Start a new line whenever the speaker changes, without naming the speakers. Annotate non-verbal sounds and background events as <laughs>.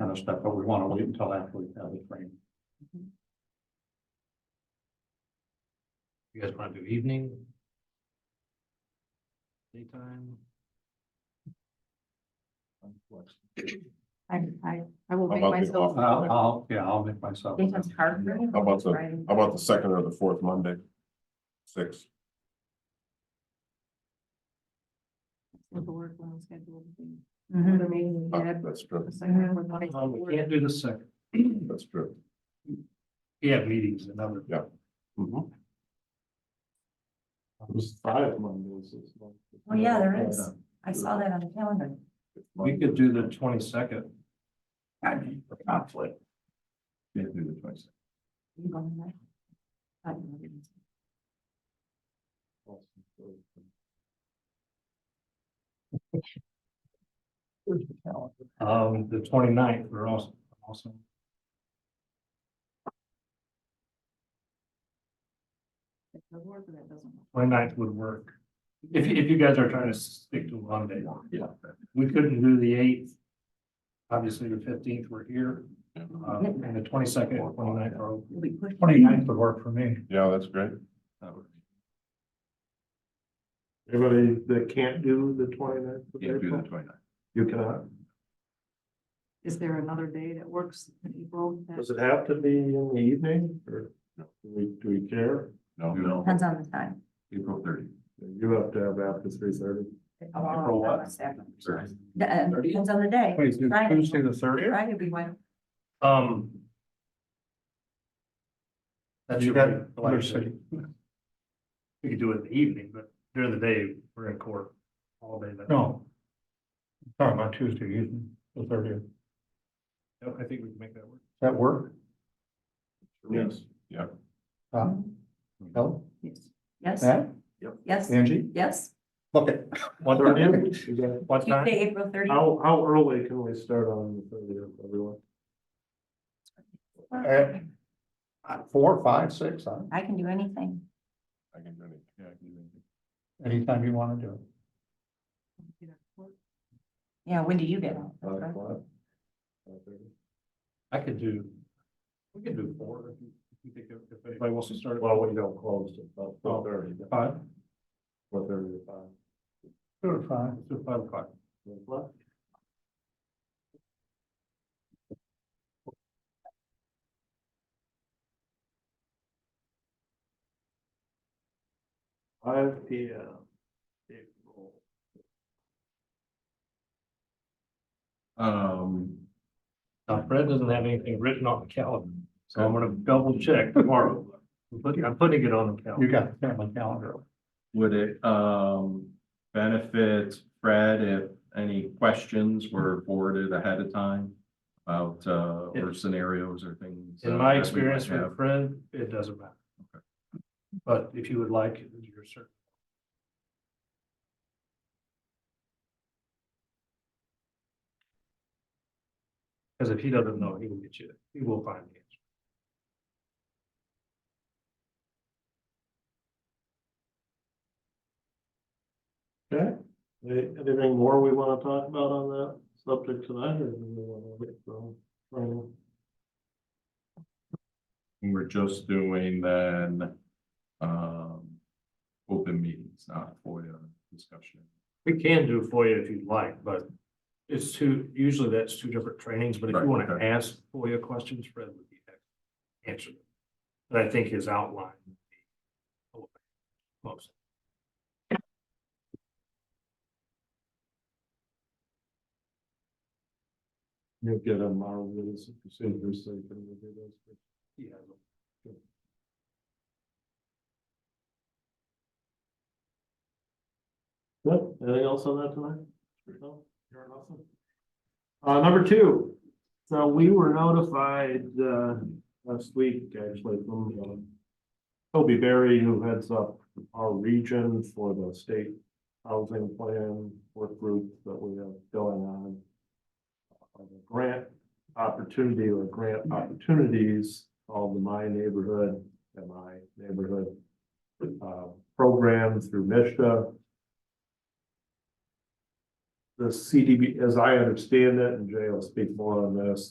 of stuff, but we want to wait until after we have the frame.
You guys want to do evening? Daytime?
I, I, I will
How
make
about the
myself.
I'll, I'll- yeah, I'll make myself.
Daytime's hard for me.
How about the-
Friday.
How about the second or the fourth Monday? Six,
With the work when we schedule everything. Another meeting we
Ah,
had,
that's true,
the second one, like,
Um, we can't do the second.
that's true.
We have meetings and other.
Mm-hmm. There's five Mondays.
Oh, yeah, there is. I saw that on the calendar.
We could do the twenty-second.
I mean, for conflict.
Yeah, do the twice.
you go on that. I don't know.
Um, the 29th. we're also, also.
If the work of that doesn't work.
29th would work. If, you- if you guys are trying to stick to one day.
Yeah.
We couldn't do the eighth. Obviously, the fifteenth, we're here, um, and the twenty-second, 29th are open.
We'll be pushing.
Twenty-ninth would work for me.
Yeah, that's great.
Everybody that can't do the 29th of
Yeah, do the
April,
twenty-nine.
you cannot.
Is there another day that works in April? that-
Does it have to be in the evening or do we, do we care?
No, no,
Depends on the time.
April thirty.
You have to have after three thirty.
Oh,
April what?
Sorry.
The, uh, Depends on the day.
Wait, is it
Friday.
Tuesday the thirtieth?
Friday would be when,
Um. That's
You
your,
got-
like I said, we could do it in the evening, but during the day, we're in court all day. that-
No. Sorry, about Tuesday evening, the thirtieth. Does
No, I think we can make that work.
that work?
Yes,
Tom? Helen?
Yes.
yes,
Matt?
yes,
Angie?
yes.
Look at.
What
<laughs>
time? What time?
Tuesday, April thirtieth.
How, how early can we start on the thirtieth, everyone?
Uh, Four, five, six, uh,
I can do anything.
I can do it. Yeah, I can do it.
anytime you want to do it.
Yeah, when do you get out?
Five
Uh,
o'clock? Five thirty?
I could do, we could do four if you- if you think, of- if anybody wants to start. Oh,
Well, we don't close till about four thirty,
Five,
four thirty to five.
do it five.
Let's do five o'clock.
Five o'clock? Five P M. April.
Um,
Now Fred doesn't have anything written on the calendar, so I'm gonna double check tomorrow. I'm putting, I'm putting it on the
You
calendar.
got the family calendar.
would it, um, benefit Fred if any questions were forwarded ahead of time? About, uh, or scenarios or things?
In
uh,
my
that we
experience
might have?
with Fred, it doesn't matter. But if you would like, you're certain. Because if he doesn't know, he will get you, he will find the answer.
Okay, Any- anything more we want to talk about on that subject tonight, or do we want to wait for, for,
We're just doing then, um, open meetings, not FOIA discussion.
We can do FOIA if you'd like, but it's two, usually that's two different trainings, but if
Right,
you want to
okay.
ask FOIA questions, Fred would be happy to answer them. But I think his outline. would be Most.
you'll get a model of this procedure, so you can review those.
he has
Yep, anything else on that tonight? No? You're awesome. Uh, number two, so we were notified, uh, last week, actually, from, um, Toby Berry, who heads up our region for the state housing plan work group that we have going on. Uh, the Grant opportunity or grant opportunities called the My Neighborhood, MI Neighborhood, uh, program through Mishta the CDB, as I understand it, and Jay will speak more on this,